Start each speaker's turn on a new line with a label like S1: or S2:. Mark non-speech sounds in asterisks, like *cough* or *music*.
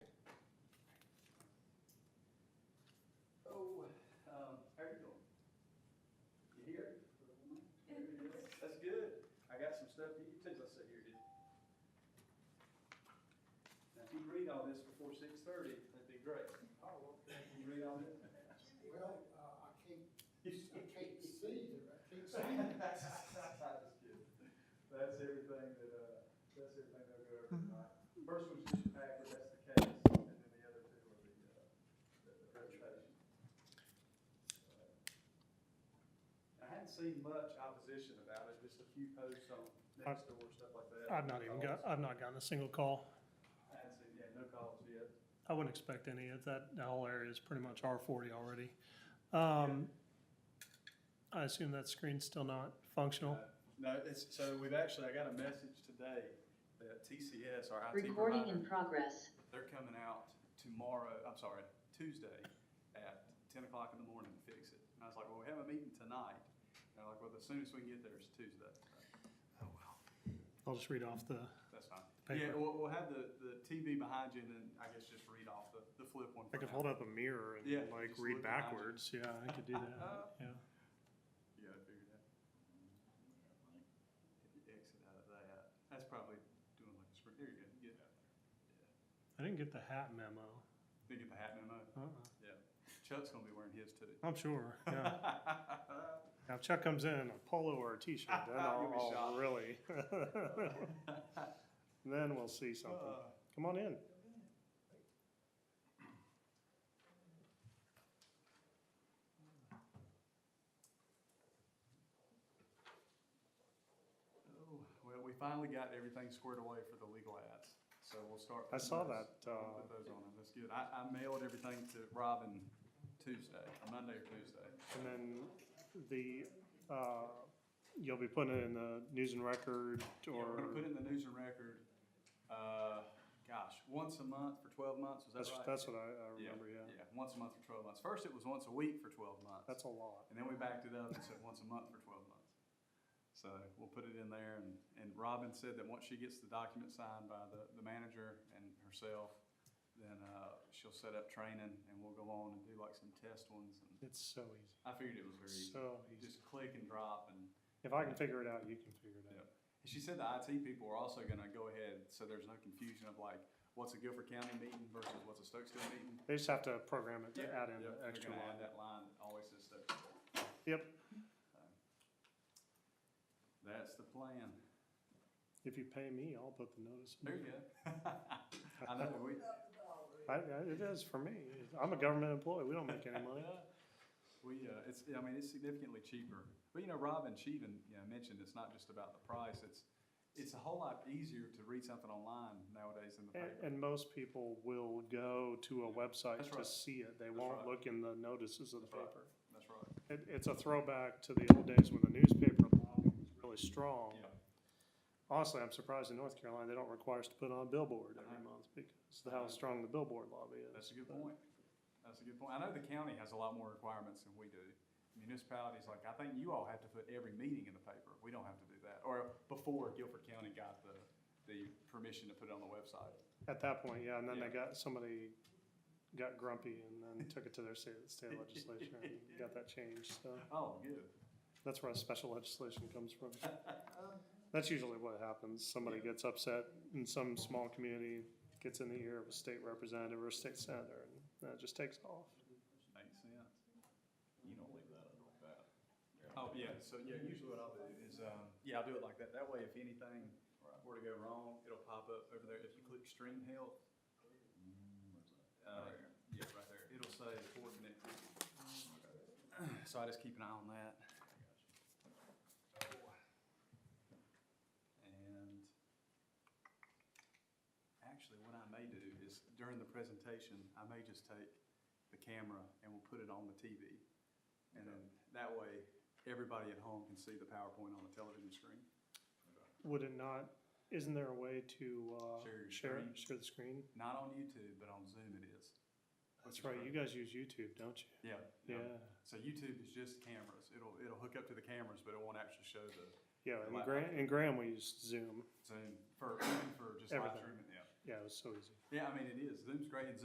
S1: Oh, um, thirty, that'd be great.
S2: Oh, okay.
S1: Can you read on it?
S2: Well, uh, I can't, I can't see it,
S1: *laughs*
S2: I can't see it.
S1: Just kidding. That's everything that, uh, that's everything they'll go over tonight. First one's just a packet, that's the case, and then the other two are the, uh, the the presentation. I hadn't seen much opposition about it, just a few posts on next door, stuff like that.
S3: I've not even got, I've not gotten a single call.
S1: I hadn't seen, yeah, no calls yet.
S3: I wouldn't expect any. It's that, that whole area is pretty much R forty already. Um, I assume that screen's still not functional.
S1: Uh, No, it's, so we've actually, I got a message today that TCS, our IT
S4: Recording
S1: provider,
S4: in progress.
S1: they're coming out tomorrow, I'm sorry, Tuesday at ten o'clock in the morning to fix it. And I was like, well, we have a meeting tonight. And they're like, well, the soonest we can get there is Tuesday.
S3: Oh, I'll just read off the,
S1: That's fine. Yeah,
S3: Paper.
S1: we'll, we'll have the, the TV behind you and then I guess just read off the, the flip one. for
S3: I could
S1: now.
S3: hold up a mirror
S1: Yeah,
S3: and like
S1: just
S3: read
S1: look behind you.
S3: backwards. Yeah, I could do that.
S1: *laughs*
S3: Yeah.
S1: Yeah, I figured that. If you exit out of that, that's probably doing like a sprint. There you go. Get out there.
S3: I didn't get the hat memo.
S1: Then get the hat memo.
S3: Uh-uh.
S1: Chuck's gonna be wearing his too.
S3: I'm *laughs* sure,
S1: *laughs*
S3: yeah. Now if Chuck comes in in a polo or a
S1: *laughs*
S3: t-shirt, then
S1: You'll be
S3: I'll,
S1: shocked.
S3: I'll really. *laughs* Then we'll see something.
S1: Uh,
S3: Come on in.
S1: oh, Well, we finally got everything squared away for the legal ads, so we'll start.
S3: I
S1: putting
S3: saw
S1: those-
S3: that, uh,
S1: Put those on, it. that's good. I, I mailed everything to Robin Tuesday, or Monday or Tuesday.
S3: And then the, uh, you'll be putting it in the news and record
S1: Yeah, We're gonna put
S3: or,
S1: it in the news and record, uh, gosh, once a month for twelve months, was
S3: that's,
S1: that right?
S3: that's what I, I remember, yeah.
S1: Yeah, once a month for twelve months. First, it was once a week for twelve months.
S3: That's a lot.
S1: And then we backed it up and said once a month for twelve months. So we'll put it in there and, and Robin said that once she gets the document signed by the, the manager and herself, then, uh, she'll set up training and we'll go on and do like some test ones and
S3: It's so easy,
S1: I figured it was very, easy.
S3: so easy.
S1: just click and drop and,
S3: If I can figure it out, you can figure it
S1: Yeah.
S3: out.
S1: and she said the IT people are also gonna go ahead, so there's no confusion of like, what's a Guilford County meeting versus what's a Stokesdale meeting?
S3: They just have to program it to add in
S1: Yeah, they're
S3: the extra
S1: gonna add
S3: line.
S1: That line that always says Stokesdale.
S3: Yep,
S1: That's the plan.
S3: if you pay me, I'll put the notice. in.
S1: There you go. *laughs* I know, we,
S3: I, I, it is for me. I'm a government employee. We don't make any
S1: *laughs*
S3: money.
S1: we, uh, it's, I mean, it's significantly cheaper. But, you know, Robin, she even, you know, mentioned it's not just about the price, it's, it's a whole lot easier to read something online nowadays than the
S3: And,
S1: paper.
S3: and most people will go to a
S1: That's
S3: website to
S1: right.
S3: see it. They
S1: That's
S3: won't
S1: right.
S3: look in the notices of the
S1: That's right.
S3: paper.
S1: That's right.
S3: It, it's a throwback to the old days when the newspaper lobby was really strong.
S1: Yeah.
S3: Honestly, I'm surprised in North Carolina, they don't require us to put on a billboard every
S1: Uh-huh.
S3: month because of how strong the billboard lobby is.
S1: That's a good point. That's a good point. I know the county has a lot more requirements than we do. Municipalities, like, I think you all have to put every meeting in the paper. We don't have to do that. Or before Guilford County got the, the permission to put it on the website.
S3: At that point, yeah, and then they
S1: Yeah.
S3: got, somebody got grumpy and then took it to their state, state legislature and
S1: *laughs*
S3: got that changed, so.
S1: Oh, good.
S3: That's where special legislation comes
S1: *laughs*
S3: from.
S1: Um,
S3: That's usually what happens. Somebody gets upset in some small community, gets in the ear of a state representative or a state senator, and that just takes off.
S1: Makes sense.
S5: You don't leave that under that.
S1: Oh, yeah, so, yeah, usually what I'll do is, um, yeah, I'll do it like that, that way if anything were to go wrong, it'll pop up over there, if you click stream help.
S5: Mm,
S1: Uh, yeah, right there, it'll say for connected. So I just keep an eye on that. And actually, what I may do is during the presentation, I may just take the camera and we'll put it on the TV. And then that way, everybody at home can see the PowerPoint on the television screen.
S3: Would it not, isn't there a way to, uh,
S1: Share your
S3: share,
S1: screen.
S3: share the screen?
S1: Not on YouTube, but on Zoom it is.
S3: That's right, you guys use YouTube, don't you?
S1: Yeah.
S3: Yeah,
S1: So YouTube is just cameras. It'll, it'll hook up to the cameras, but it won't actually show the
S3: yeah,
S1: Like-
S3: and Graham, and Graham, we used Zoom.
S1: Zoom for, for just live
S3: Everything.
S1: streaming, yeah.
S3: Yeah, it was so easy.
S1: Yeah, I mean, it is. Zoom's great and